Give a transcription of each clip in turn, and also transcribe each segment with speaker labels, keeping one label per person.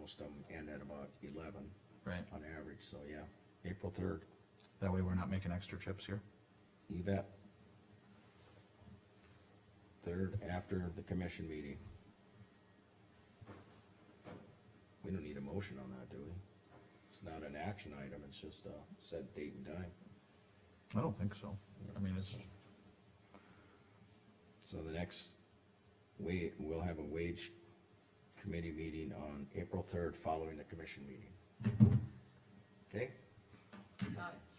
Speaker 1: most of them end at about eleven
Speaker 2: right?
Speaker 1: on average, so yeah, April third,
Speaker 2: That way we're not making extra trips here.
Speaker 1: you bet. Third after the commission meeting. We don't need a motion on that, do we? It's not an action item, it's just a set date and time.
Speaker 2: I don't think so. I mean, it's,
Speaker 1: So the next, we, we'll have a wage committee meeting on April third, following the commission meeting. Okay,
Speaker 3: Got it.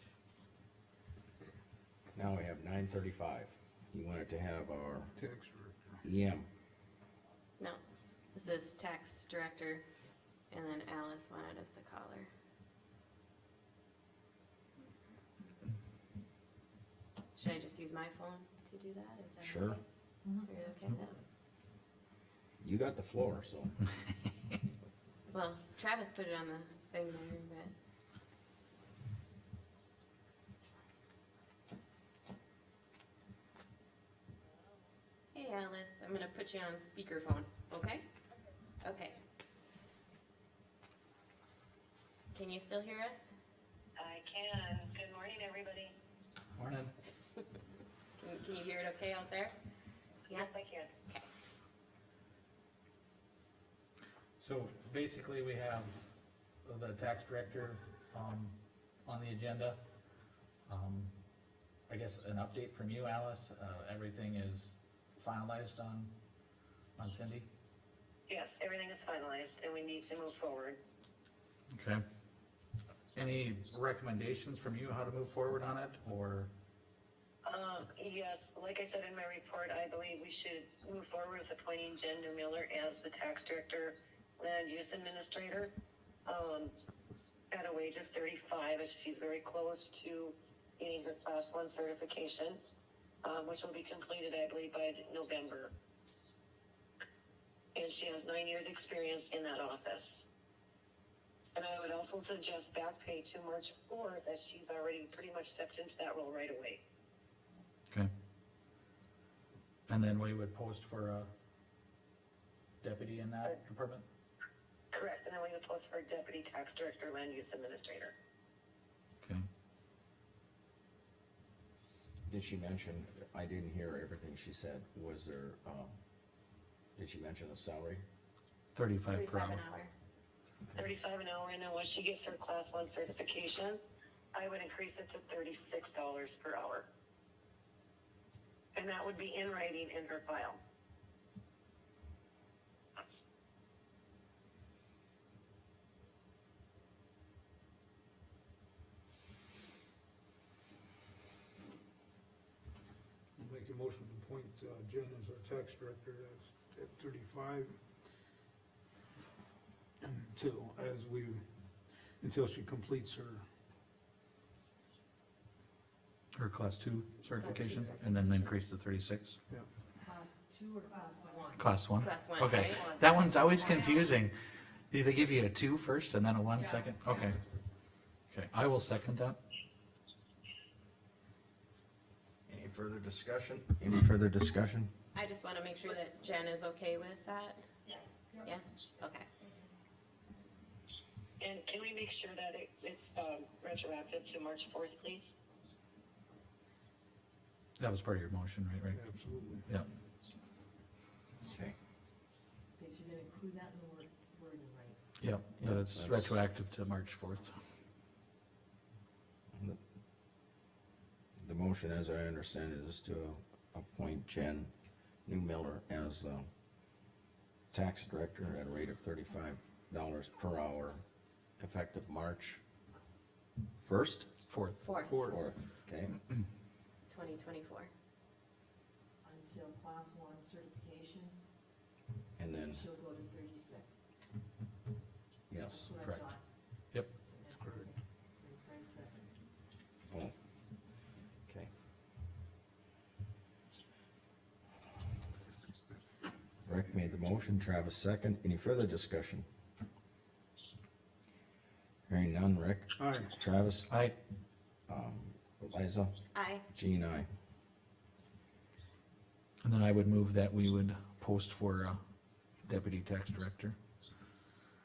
Speaker 1: now we have nine thirty-five. You wanted to have our E
Speaker 4: Tax director.
Speaker 1: EM,
Speaker 5: No, this is tax director, and then Alice wanted us to call her. Should I just use my phone to do that? Is that
Speaker 1: Sure.
Speaker 5: okay? Are you okay with that?
Speaker 1: you got the floor, so.
Speaker 5: Well, Travis put it on the thing there, but Hey Alice, I'm gonna put you on speakerphone, okay? Okay. Can you still hear us?
Speaker 6: I can. Good morning, everybody.
Speaker 2: Morning.
Speaker 5: Can, can you hear it okay out there? Yeah.
Speaker 6: Yes, I can.
Speaker 7: So basically, we have the tax director, um, on the agenda. Um, I guess an update from you, Alice, uh, everything is finalized on, on Cindy?
Speaker 6: Yes, everything is finalized and we need to move forward.
Speaker 7: Okay. Any recommendations from you how to move forward on it, or,
Speaker 6: Um, yes, like I said in my report, I believe we should move forward with appointing Jen Newmiller as the tax director, land use administrator. Um, at a wage of thirty-five, as she's very close to getting her class one certification, um, which will be completed, I believe, by November. And she has nine years' experience in that office. And I would also suggest back pay to March fourth, as she's already pretty much stepped into that role right away.
Speaker 2: Okay,
Speaker 7: and then we would post for a deputy in that department?
Speaker 6: Correct, and then we would post for deputy tax director, land use administrator.
Speaker 2: okay.
Speaker 1: Did she mention, I didn't hear everything she said, was there, um, did she mention the salary?
Speaker 2: Thirty-five per
Speaker 5: Thirty-five
Speaker 2: hour.
Speaker 5: an hour.
Speaker 6: Thirty-five an hour, and then once she gets her class one certification, I would increase it to thirty-six dollars per hour. And that would be in writing in her file.
Speaker 4: Make a motion to appoint uh, Jen as our tax director at, at thirty-five. Until, as we, until she completes her,
Speaker 2: Or class two certification, and then increase to thirty-six,
Speaker 4: yeah.
Speaker 3: Class two or class one?
Speaker 2: class one?
Speaker 5: Class one,
Speaker 2: Okay,
Speaker 5: right?
Speaker 2: that one's always confusing. Do they give you a two first and then a one
Speaker 3: Yeah.
Speaker 2: second? Okay. Okay, I will second that.
Speaker 1: Any further discussion? Any further discussion?
Speaker 5: I just wanna make sure that Jen is okay with that.
Speaker 3: Yep.
Speaker 5: Yes, okay.
Speaker 6: And can we make sure that it, it's, um, retroactive to March fourth, please?
Speaker 2: That was part of your motion, right, right?
Speaker 4: Absolutely.
Speaker 2: Yeah,
Speaker 1: Okay.
Speaker 3: Okay, so you're gonna include that in the word, wording, right?
Speaker 2: yeah, that it's
Speaker 1: that's-
Speaker 2: retroactive to March fourth.
Speaker 1: The motion, as I understand it, is to appoint Jen New Miller as, um, tax director at a rate of thirty-five dollars per hour, effective March first?
Speaker 2: Fourth.
Speaker 5: Fourth,
Speaker 1: Fourth, okay,
Speaker 5: twenty twenty-four.
Speaker 3: Until class one certification,
Speaker 1: and then,
Speaker 3: she'll go to thirty-six.
Speaker 1: yes,
Speaker 3: That's what I
Speaker 2: correct.
Speaker 3: thought.
Speaker 2: Yep.
Speaker 3: That's what I think. Rephrase that.
Speaker 1: oh, okay. Rick made the motion, Travis second, any further discussion? Hearing none, Rick,
Speaker 4: Aye,
Speaker 1: Travis,
Speaker 2: I,
Speaker 1: um, Liza,
Speaker 5: Aye.
Speaker 1: Jean, I.
Speaker 2: and then I would move that we would post for uh, deputy tax director.